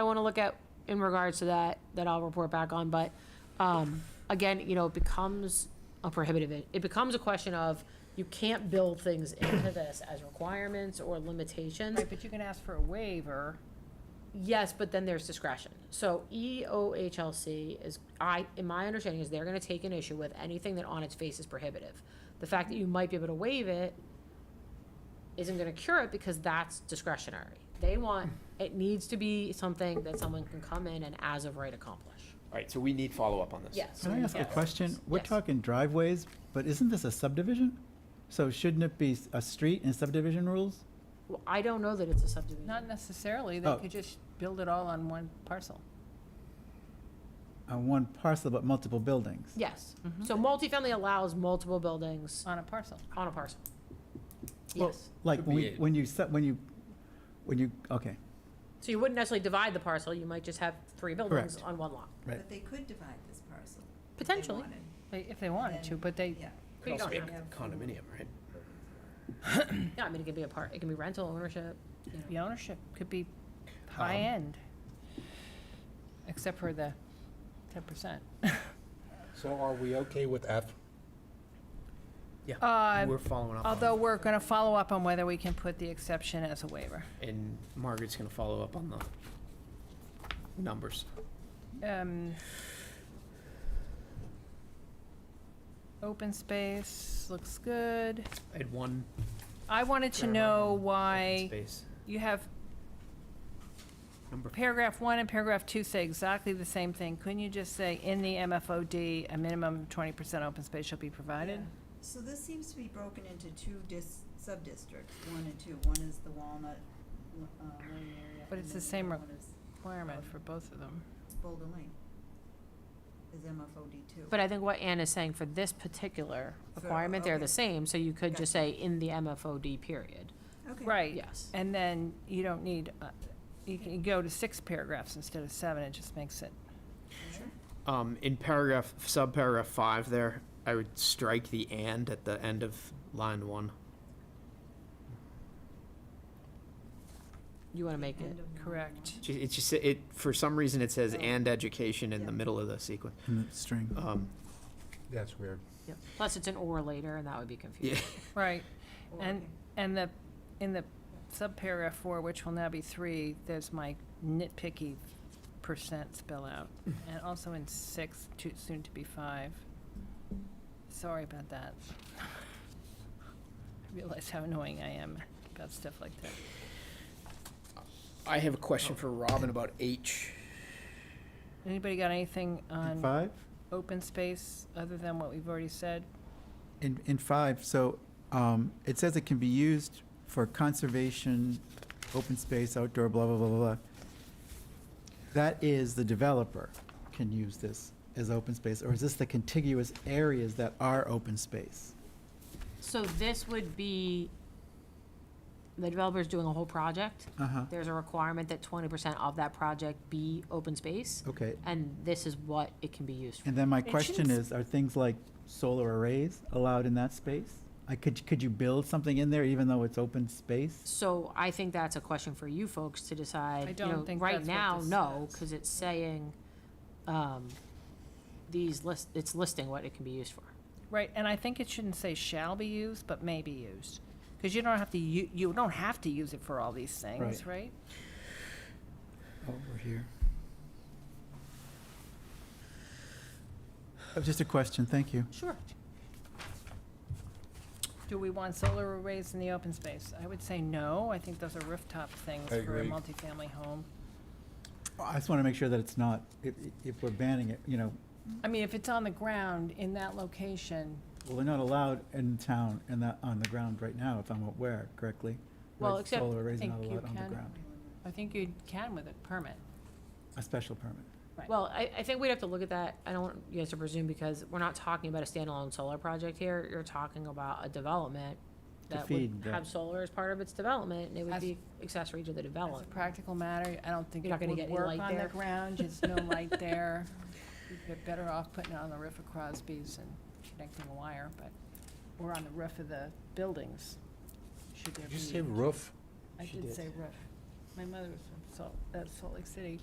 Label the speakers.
Speaker 1: I want to look at in regards to that, that I'll report back on, but, um, again, you know, it becomes a prohibitive, it it becomes a question of, you can't build things into this as requirements or limitations.
Speaker 2: Right, but you can ask for a waiver.
Speaker 1: Yes, but then there's discretion. So E EOHLC is, I, in my understanding, is they're gonna take an issue with anything that on its face is prohibitive. The fact that you might be able to waive it isn't gonna cure it because that's discretionary. They want, it needs to be something that someone can come in and as of right accomplish.
Speaker 3: All right, so we need follow-up on this.
Speaker 1: Yes.
Speaker 4: Can I ask a
Speaker 1: Mm, Yes.
Speaker 4: question? We're
Speaker 1: Yes.
Speaker 4: talking driveways, but isn't this a subdivision? So shouldn't it be s- a street and subdivision rules?
Speaker 1: Well, I don't know that it's a subdivision.
Speaker 2: Not necessarily, they
Speaker 4: Oh.
Speaker 2: could just build it all on one parcel.
Speaker 4: On one parcel but multiple buildings?
Speaker 1: Yes. So multifamily allows multiple buildings
Speaker 2: On a parcel.
Speaker 1: on a parcel.
Speaker 4: Well,
Speaker 1: Yes.
Speaker 4: Like
Speaker 3: Could
Speaker 4: when
Speaker 3: be
Speaker 4: we-
Speaker 3: it.
Speaker 4: when you, se- when you, when you, okay,
Speaker 1: So you wouldn't necessarily divide the parcel, you might just have three buildings
Speaker 4: Correct.
Speaker 1: on one lot.
Speaker 4: right.
Speaker 5: But they could divide this parcel. if they
Speaker 1: Potentially.
Speaker 5: wanted.
Speaker 2: They- If they wanted to, but they,
Speaker 5: Yeah,
Speaker 1: But you
Speaker 3: Could also
Speaker 1: don't
Speaker 3: be a
Speaker 1: have
Speaker 3: Condominium, right?
Speaker 1: Yeah, I mean, it could be a part, it can be rental ownership.
Speaker 2: the ownership could be
Speaker 3: Um.
Speaker 2: high-end, except for the ten percent.
Speaker 6: So are we okay with F?
Speaker 3: We're following up. on
Speaker 2: Uh, Although we're going to follow up on whether we can put the exception as a waiver.
Speaker 3: it, And Margaret's gonna follow up on the numbers.
Speaker 2: Um, Open space, looks good.
Speaker 3: I had one.
Speaker 2: I wanted to
Speaker 3: Where am I
Speaker 2: know
Speaker 3: on open
Speaker 2: why
Speaker 3: Space,
Speaker 2: you have
Speaker 3: number f-
Speaker 2: Paragraph one and paragraph two say exactly the same thing. Couldn't you just say, in the MFOD, a minimum twenty percent open space shall be provided?
Speaker 5: yeah. So this seems to be broken into two dis, sub-districts, one and two. One is the Walnut, uh, Lane area.
Speaker 2: But
Speaker 5: and
Speaker 2: it's the
Speaker 5: then
Speaker 2: same
Speaker 5: other
Speaker 2: re-
Speaker 5: One is
Speaker 2: Requirement for both of them.
Speaker 5: Boulder Lane, is MFOD two.
Speaker 1: But I think what Ann is saying for this particular
Speaker 5: So,
Speaker 1: requirement, they're the
Speaker 5: okay.
Speaker 1: same, so you could just
Speaker 5: Gotcha.
Speaker 1: say in the MFOD period.
Speaker 5: Okay.
Speaker 2: Right,
Speaker 1: Yes.
Speaker 2: and then you don't need, uh, you can go to six paragraphs instead of seven, it just makes it.
Speaker 3: Um, in paragraph, subparagraph five there, I would strike the and at the end of line one.
Speaker 1: You want to make it,
Speaker 5: End of
Speaker 2: Mm.
Speaker 5: Walnut
Speaker 2: Correct.
Speaker 3: Ju- It just, it, for some reason, it says
Speaker 5: Oh.
Speaker 3: and education in the
Speaker 5: Yeah.
Speaker 3: middle of the sequence.
Speaker 4: In the string.
Speaker 3: Um,
Speaker 6: That's weird.
Speaker 1: plus it's an or later, and that would be confusing.
Speaker 2: Right,
Speaker 5: Lane.
Speaker 2: and, and the, in the subparagraph four, which will now be three, there's my nitpicky percent spell out. And also in six, too soon to be five. Sorry about that. I realize how annoying I am about stuff like that.
Speaker 3: I have a question for Robin about H.
Speaker 2: Anybody got anything
Speaker 4: In
Speaker 2: on
Speaker 4: five?
Speaker 2: open space other than what we've already said?
Speaker 4: In, in five, so um, it says it can be used for conservation, open space, outdoor, blah, blah, blah, blah, blah. That is, the developer can use this as open space, or is this the contiguous areas that are open space?
Speaker 1: So this would be, the developer's doing a whole project.
Speaker 4: Uh-huh,
Speaker 1: There's a requirement that twenty percent of that project be open space,
Speaker 4: okay.
Speaker 1: and this is what it can be used for.
Speaker 4: And then my
Speaker 2: shouldn't
Speaker 4: question
Speaker 2: s-
Speaker 4: is, are things like solar arrays allowed in that space? I could, could you build something in there even though it's open space?
Speaker 1: So I think that's a question for you folks to decide.
Speaker 2: I
Speaker 1: You
Speaker 2: don't
Speaker 1: know,
Speaker 2: think
Speaker 1: Right
Speaker 2: that's what
Speaker 1: now,
Speaker 2: this
Speaker 1: no,
Speaker 2: says.
Speaker 1: because it's saying, um, these list, it's listing what it can be used for.
Speaker 2: Right, and I think it shouldn't say shall be used, but may be used. Because you don't have to, you, you don't have to use it for all these things,
Speaker 4: Right.
Speaker 2: right?
Speaker 4: Oh, we're here. That was Uh, Just a question, thank you.
Speaker 1: Sure.
Speaker 2: Do we want solar arrays in the open space? I would say no. I think those are rooftop things
Speaker 6: I
Speaker 2: for a
Speaker 6: agree.
Speaker 2: multifamily home.
Speaker 4: I just want to make sure that it's not, if, if we're banning it, you know,
Speaker 2: I mean, if it's on the ground in that location,
Speaker 4: well, they're not allowed in town and that, on the ground right now, if I'm aware correctly.
Speaker 1: Well,
Speaker 4: Like,
Speaker 1: except
Speaker 4: Solar arrays are
Speaker 2: think
Speaker 4: not
Speaker 2: you
Speaker 4: allowed on the
Speaker 2: can-
Speaker 4: ground,
Speaker 2: I think you can with a permit.
Speaker 4: a special permit.
Speaker 1: Well, I, I think we'd have to look at that. I don't want you guys to presume because we're not talking about a standalone solar project here. You're talking about a development
Speaker 4: To
Speaker 1: that would
Speaker 4: feed the-
Speaker 1: have solar as part of its development and it would
Speaker 2: As-
Speaker 1: be accessory to the
Speaker 2: As a
Speaker 1: development.
Speaker 2: practical matter, I don't think
Speaker 1: You're not
Speaker 2: it
Speaker 1: gonna get
Speaker 2: would
Speaker 1: any
Speaker 2: work
Speaker 1: light
Speaker 2: on the
Speaker 1: there.
Speaker 2: ground. There's no light there. You're better off putting it on the roof of Crosby's and connecting a wire, but, or on the roof of the buildings, should there
Speaker 6: Did
Speaker 2: be.
Speaker 6: you say roof?
Speaker 2: I
Speaker 3: She
Speaker 2: did
Speaker 3: did.
Speaker 2: say roof. My mother was from Salt, uh, Salt Lake City.